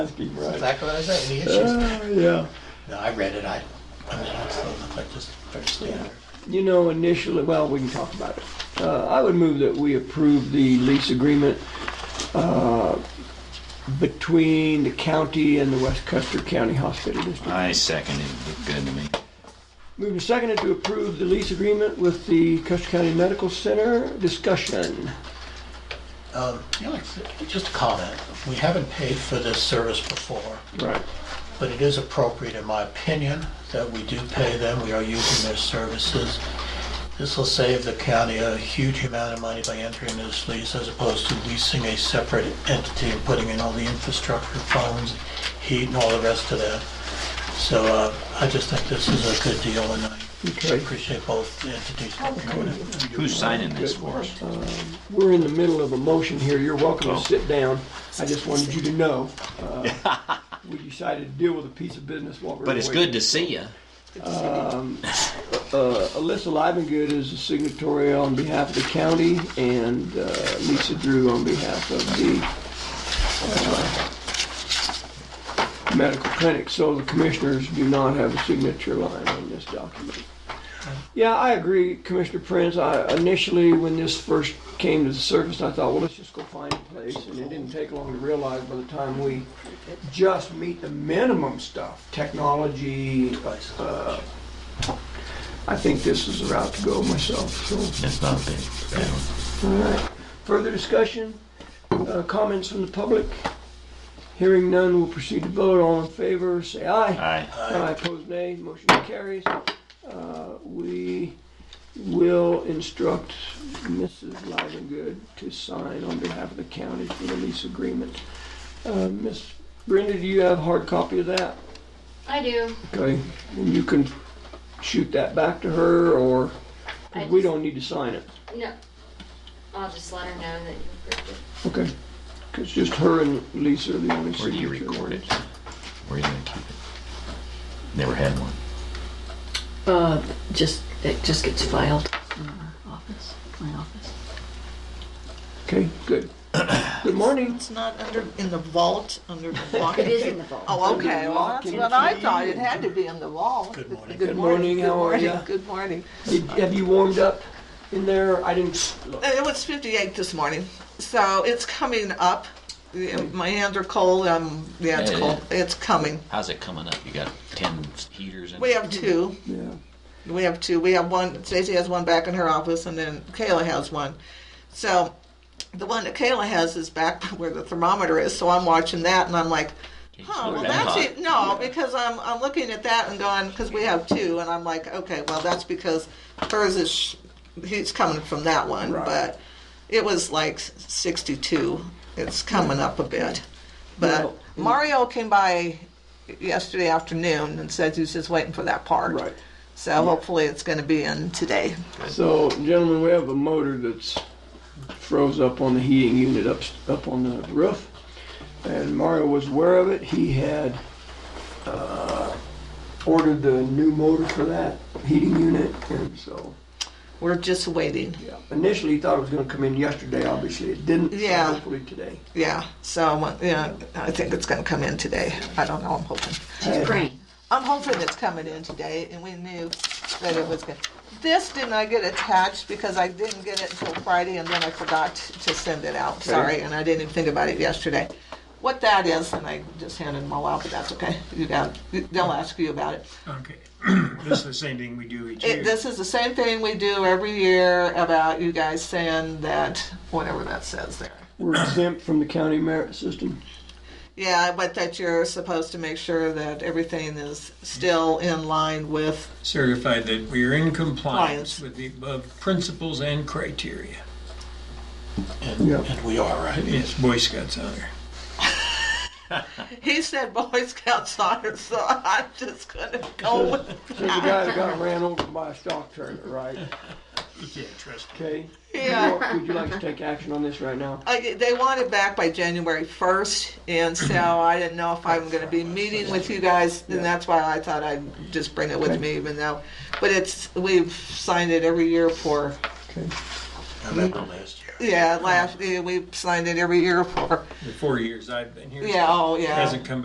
asking, right? Exactly what I say, any issues? Uh, Yeah. No, I read it, I, I mean, it's, it's just fair standard. You know, initially, well, we can talk about it. Uh, I would move that we approve the lease agreement uh, between the county and the West Custer County Hospital District. I second it. Looked good to me. Moving seconded to approve the lease agreement with the Custer County Medical Center. Discussion. Um, Alex, just a comment, we haven't paid for this service before, Right. but it is appropriate, in my opinion, that we do pay them, we are using their services. This will save the county a huge amount of money by entering this lease as opposed to leasing a separate entity and putting in all the infrastructure, phones, heat and all the rest of that. So uh, I just think this is a good deal and I Okay. appreciate both entities. Who's signing this for us? We're in the middle of a motion here. You're Oh. welcome to sit down. I just wanted you to know. uh, We decided to deal with a piece of business while we we're But it's waiting. good to see you. Uh, Alyssa Livengood is a signatory on behalf of the county, and uh, Lisa Drew on behalf of the uh, medical clinic, so the commissioners do not have a signature line on this document. Yeah, I agree, Commissioner Prince. I initially, when this first came to the surface, I thought, well, let's just go find a place, and it didn't take long to realize by the time we just meet the minimum stuff, technology, uh, I think this is the route to go myself, so. It's not big. All right. Further discussion? Uh, Comments from the public? Hearing none, we'll proceed to vote. All in favor, say aye. Aye. Aye, opposed, nay. Motion carries. Uh, We will instruct Mrs. Livengood to sign on behalf of the county for the lease agreement. Uh, Miss Brenda, do you have a hard copy of that? I do. Okay, and you can shoot that back to her, or, 'cause we I- don't need to sign it, No. I'll just let her know that you approved it. okay? Because just her and Lisa are the only Where do you signature record it? ones. Where are you gonna keep it? Never had one. Uh, just, it just gets filed in our office, my office. Okay, good. Good morning. It's not under, in the vault, under the lock? It is in the vault. Oh, okay, well, that's Under the what lock I and thought, key. it had to be in the vault. Good morning. Good morning, good how are morning, ya? Good morning. Did- Have you warmed up in there? I didn't, s- look. It was 58 this morning, so it's coming up. Yeah, My hands are cold, um, yeah, it's Yeah, cold, it's coming. How's it coming up? You got ten heaters in? We have two, yeah, we have two, we have one, Stacy has one back in her office, and then Kayla has one. So, the one that Kayla has is back where the thermometer is, so I'm watching that, and I'm like, Geez, Oh, well, look at that's that. it. No, because I'm, I'm looking at that and going, because we have two, and I'm like, okay, well, that's because hers is, sh- he's coming from that one, Right. but it was like 62. It's coming up a bit. But Well, mm. Mario came by yesterday afternoon and said he was just waiting for that part. right. So hopefully it's going to be in today. So, gentlemen, we have a motor that's froze up on the heating unit up, up on the roof. And Mario was aware of it. He had, uh, ordered the new motor for that heating unit. And so, We're just waiting. yeah, initially he thought it was gonna come in yesterday. Obviously, it didn't. so Yeah. Hopefully today. Yeah. So, yeah, I think it's going to come in today. I don't know. I'm hoping. Hey, She's praying. I'm hoping it's coming in today, and we knew that it was good. This did not get attached because I didn't get it until Friday, and then I forgot to send it out, sorry, and I didn't even think about it yesterday. What that is, and I just handed them all out, but that's okay, you got, they'll ask you about it. Okay, this is the same thing we do each year. It, this is the same thing we do every year about you guys saying that, whatever that says there. We're exempt from the county merit system. Yeah, but that you're supposed to make sure that everything is still in line with Certified that we are in compliance Compliance. with the above principles and criteria. And Yeah. and we are, right? It's Boy Scouts honor. He said Boy Scouts honor, so I'm just gonna go with Says the guy that got ran over by a stock trailer, right? You can't trust Okay. Yeah. Would you- Would you like to take action on this right now? I, they want it back by January 1st, and so I didn't know if I'm going to be meeting with you guys, and that's why I thought I'd just bring it with me, even though. But it's we've signed it every year for Okay. I remember last year. yeah, last, yeah, we've signed it every year for, The four years I've been here. yeah, oh, yeah. Hasn't come